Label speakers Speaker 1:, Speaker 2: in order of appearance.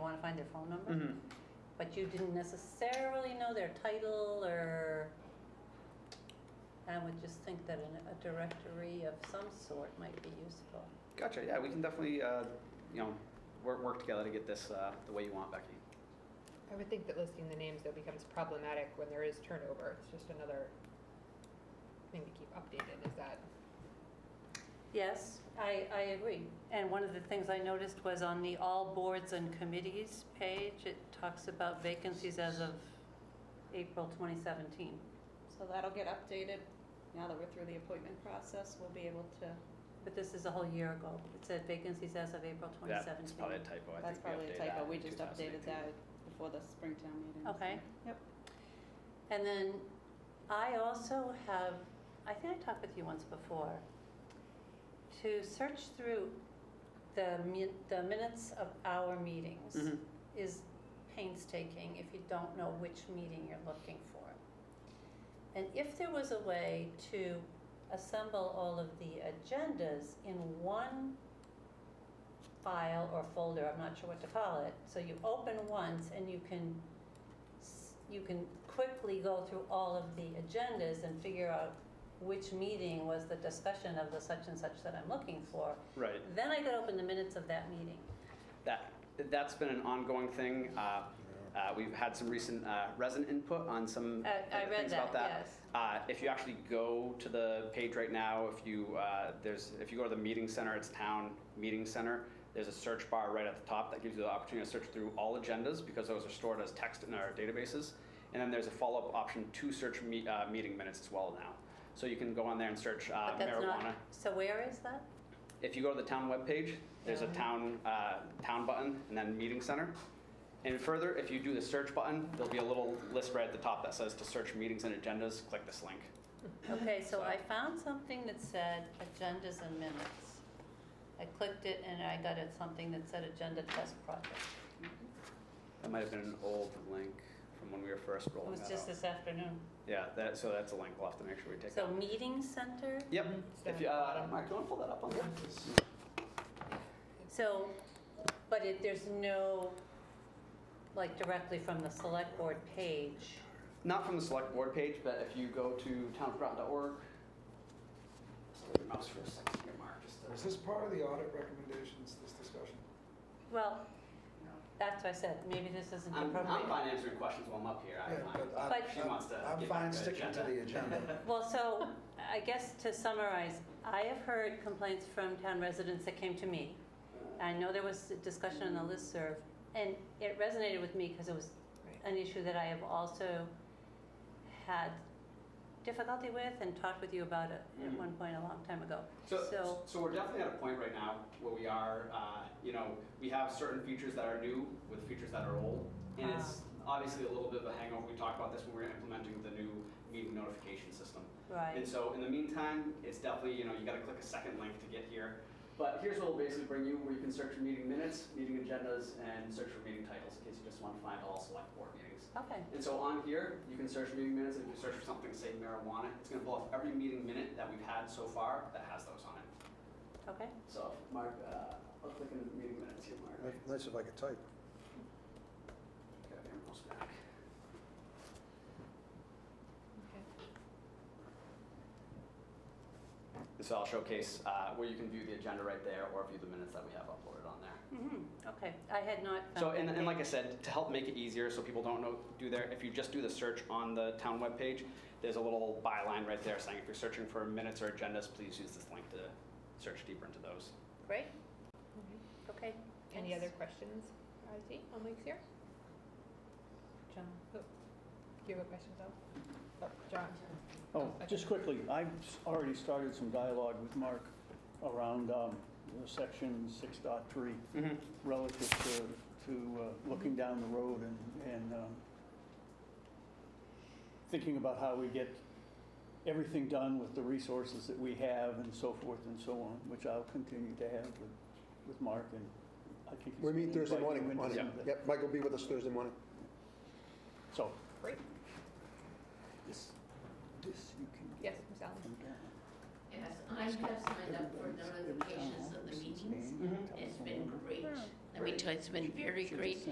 Speaker 1: want to find their phone number,
Speaker 2: Mhm.
Speaker 1: but you didn't necessarily know their title or, I would just think that an- a directory of some sort might be useful.
Speaker 2: Gotcha. Yeah, we can definitely, uh, you know, work, work together to get this uh, the way you want, Becky.
Speaker 3: I would think that listing the names though becomes problematic when there is turnover. It's just another thing to keep updated, is that,
Speaker 1: Yes, I, I agree. And one of the things I noticed was on the all boards and committees page, it talks about vacancies as of April 2017.
Speaker 4: So that'll get updated. Now that we're through the appointment process, we'll be able to,
Speaker 1: But this is a whole year ago. It said vacancies as of April
Speaker 2: That's probably a
Speaker 1: 2017.
Speaker 2: typo. I
Speaker 4: that's
Speaker 2: think
Speaker 4: probably
Speaker 2: we
Speaker 4: a
Speaker 2: updated
Speaker 4: typo.
Speaker 2: that
Speaker 4: We
Speaker 2: in
Speaker 4: just updated
Speaker 2: 2018.
Speaker 4: that before the Springtown meeting. so-
Speaker 1: Okay.
Speaker 4: Yep.
Speaker 1: And then I also have, I think I talked with you once before, to search through the mi- the minutes of our meetings.
Speaker 2: Mhm.
Speaker 1: is painstaking if you don't know which meeting you're looking for. And if there was a way to assemble all of the agendas in one file or folder, I'm not sure what to call it, so you open once and you can, s- you can quickly go through all of the agendas and figure out which meeting was the discussion of the such and such that I'm looking for,
Speaker 2: Mm-hmm. Right.
Speaker 1: then I could open the minutes of that meeting.
Speaker 2: That, that's been an ongoing thing. Uh, uh, We've had some recent uh, resident input on some
Speaker 1: I- I
Speaker 2: uh,
Speaker 1: read
Speaker 2: things about
Speaker 1: that,
Speaker 2: that.
Speaker 1: yes.
Speaker 2: Uh, If you actually go to the page right now, if you, uh, there's, if you go to the meeting center, it's town meeting center, there's a search bar right at the top that gives you the opportunity to search through all agendas because those are stored as text in our databases. And then there's a follow-up option to search me- uh, meeting minutes as well now. So you can go on there and search uh,
Speaker 1: But that's not-
Speaker 2: marijuana.
Speaker 1: So where is that?
Speaker 2: If you go to the town webpage, there's a
Speaker 3: Yeah.
Speaker 2: town, uh, town button and then meeting center. And further, if you do the search button, there'll be a little list right at the top that says to search meetings and agendas, click this link.
Speaker 1: Okay, so I found something that said agendas and minutes. I clicked it and I got it, something that said agenda test project.
Speaker 2: That might have been an old link from when we were first
Speaker 1: It
Speaker 2: rolling
Speaker 1: was
Speaker 2: that
Speaker 1: just
Speaker 2: out.
Speaker 1: this afternoon.
Speaker 2: Yeah, that, so that's a link we'll have to make sure we take
Speaker 1: So mhm,
Speaker 2: out.
Speaker 1: meeting center,
Speaker 2: Yep,
Speaker 3: It's down
Speaker 2: if
Speaker 3: at
Speaker 2: you,
Speaker 3: the
Speaker 2: uh,
Speaker 3: bottom.
Speaker 2: Mark, do you wanna pull that up on there?
Speaker 1: so, but it, there's no, like directly from the select board page.
Speaker 2: Not from the select board page, but if you go to townofgroton.org. Just leave your mouse for a second here, Mark, just to-
Speaker 5: Is this part of the audit recommendations, this discussion?
Speaker 1: Well, that's what I said, maybe this isn't
Speaker 2: I'm, I'm
Speaker 1: appropriate.
Speaker 2: fine answering questions while I'm up here. I
Speaker 5: Yeah,
Speaker 2: don't mind.
Speaker 5: I-
Speaker 1: But-
Speaker 2: She wants to
Speaker 5: I'm
Speaker 2: get
Speaker 5: fine
Speaker 2: back to
Speaker 5: sticking to
Speaker 2: agenda.
Speaker 5: the agenda.
Speaker 1: Well, so, I guess to summarize, I have heard complaints from town residents that came to me I know there was a discussion on the listserv, and it resonated with me because it was
Speaker 3: Right.
Speaker 1: an issue that I have also had difficulty with and talked with you about it at
Speaker 2: Mhm.
Speaker 1: one point a long time ago.
Speaker 2: So, so we're definitely at a point right now where we are, uh, you know, we have certain features that are new with features that are old. And it's obviously a little bit of a hangover. We talked about this when we were implementing the new meeting notification system.
Speaker 1: Right,
Speaker 2: And so in the meantime, it's definitely, you know, you gotta click a second link to get here. But here's what we'll basically bring you, where you can search for meeting minutes, meeting agendas, and search for meeting titles, in case you just wanna find all select board meetings.
Speaker 1: okay,
Speaker 2: And so on here, you can search meeting minutes, and if you search for something, say marijuana, it's gonna pull up every meeting minute that we've had so far that has those on it.
Speaker 1: okay.
Speaker 2: So, Mark, uh, I'll click into the meeting minutes here, Mark.
Speaker 5: Nice- Nice if I could type.
Speaker 2: Got my mouse back. And so I'll showcase, uh, where you can view the agenda right there, or view the minutes that we have uploaded on there.
Speaker 1: Mhm, Okay, I had not found.
Speaker 2: So, and,
Speaker 1: that
Speaker 2: and like I
Speaker 1: page.
Speaker 2: said, to help make it easier so people don't know, do their, if you just do the search on the town webpage, there's a little byline right there saying if you're searching for minutes or agendas, please use this link to search deeper into those.
Speaker 1: Great, okay.
Speaker 3: Any
Speaker 1: thanks.
Speaker 3: other questions, Ozzy, on Mike's here? John, oh, do you have a question, Phil? Oh, John,
Speaker 6: Oh, just quickly, I've s- already started some dialogue with Mark around um, the section 6.3 relative to, to uh, looking down the road and, and um, thinking about how we get everything done with the resources that we have and so forth and so on, which I'll continue to have with, with Mark and I think. he's
Speaker 7: We meet
Speaker 6: gonna
Speaker 7: Thursday
Speaker 6: invite you
Speaker 7: morning
Speaker 6: into
Speaker 7: on it.
Speaker 6: something.
Speaker 7: Yep, Mike will be with us Thursday morning.
Speaker 6: So,
Speaker 3: great,
Speaker 6: this, this you can
Speaker 3: yes,
Speaker 6: get
Speaker 3: Ms. Allen.
Speaker 6: from down.
Speaker 8: Yes, I have signed up for notifications of the meetings. It's been great. Let me tell you, it's been very great.